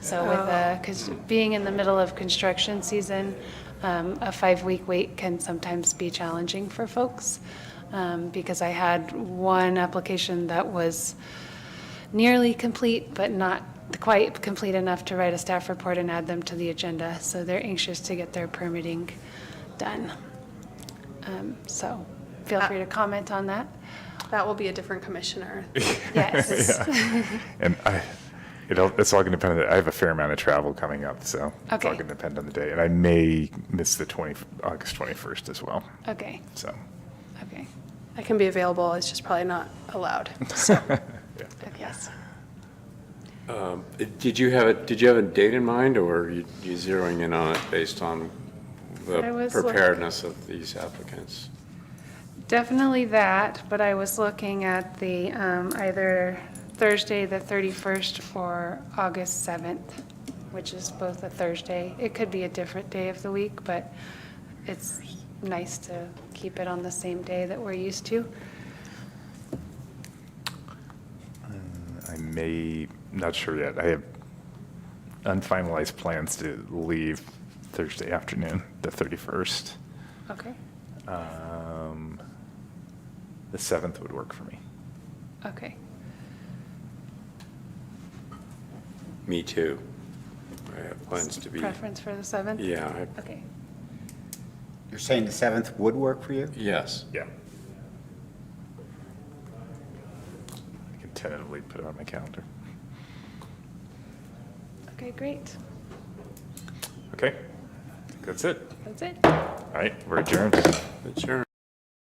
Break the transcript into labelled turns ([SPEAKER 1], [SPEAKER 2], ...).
[SPEAKER 1] So with, because being in the middle of construction season, um, a five-week wait can sometimes be challenging for folks. um, Because I had one application that was nearly complete, but not quite complete enough to write a staff report and add them to the agenda. So they're anxious to get their permitting done. Um, So feel free to comment on that.
[SPEAKER 2] That will be a different commissioner.
[SPEAKER 1] Yes.
[SPEAKER 3] And I, it all, it's all going to depend on, the- I have a fair amount of travel coming up, so it's all
[SPEAKER 1] Okay.
[SPEAKER 3] going to depend on the day. And I may miss the 20, August 21st as well,
[SPEAKER 1] Okay,
[SPEAKER 3] so.
[SPEAKER 1] okay,
[SPEAKER 2] I can be available, it's just probably not allowed.
[SPEAKER 1] yes.
[SPEAKER 4] Um, Did you have, a did you have a date in mind, or are you you zeroing in on it based on
[SPEAKER 1] I
[SPEAKER 4] the
[SPEAKER 1] was look-
[SPEAKER 4] preparedness of these applicants?
[SPEAKER 1] Definitely that, but I was looking at the, um, either Thursday, the 31st, or August 7th, which is both a Thursday. It could be a different day of the week, but it's nice to keep it on the same day that we're used to.
[SPEAKER 3] I may, not sure yet. I have unfinalized plans to leave Thursday afternoon, the 31st.
[SPEAKER 1] Okay,
[SPEAKER 3] Um, The 7th would work for me.
[SPEAKER 1] okay.
[SPEAKER 4] Me too. I have plans to be,
[SPEAKER 1] Preference for the 7th?
[SPEAKER 4] yeah, I-
[SPEAKER 1] Okay,
[SPEAKER 5] You're saying the 7th would work for you?
[SPEAKER 4] yes.
[SPEAKER 3] Yeah. I can tentatively put it on my calendar.
[SPEAKER 1] okay, great.
[SPEAKER 3] Okay, I think that's it.
[SPEAKER 1] That's it.
[SPEAKER 3] All right, we're adjourned.
[SPEAKER 4] Sure.